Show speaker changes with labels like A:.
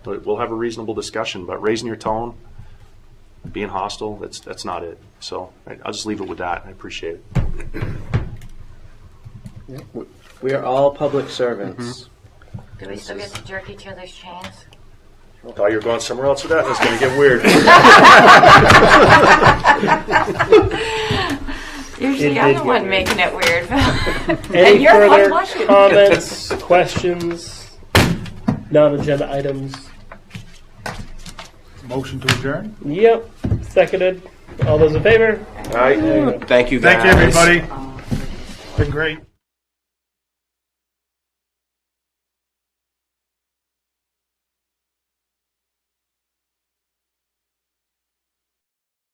A: But we'll have a reasonable discussion, but raising your tone, being hostile, that's, that's not it. So I- I'll just leave it with that. I appreciate it.
B: We are all public servants.
C: Do we still get to jerk each other's chains?
A: Thought you were going somewhere else with that. That's going to get weird.
C: Usually
B: did
C: I'm the
B: get
C: one
B: weird.
C: making it weird. and
D: Any
C: you're the one
D: further
C: watching.
D: comments, questions, non-agenda items?
E: Motion to adjourn?
D: Yep, seconded. All those in favor?
A: All right.
E: Thank you, everybody. Been great.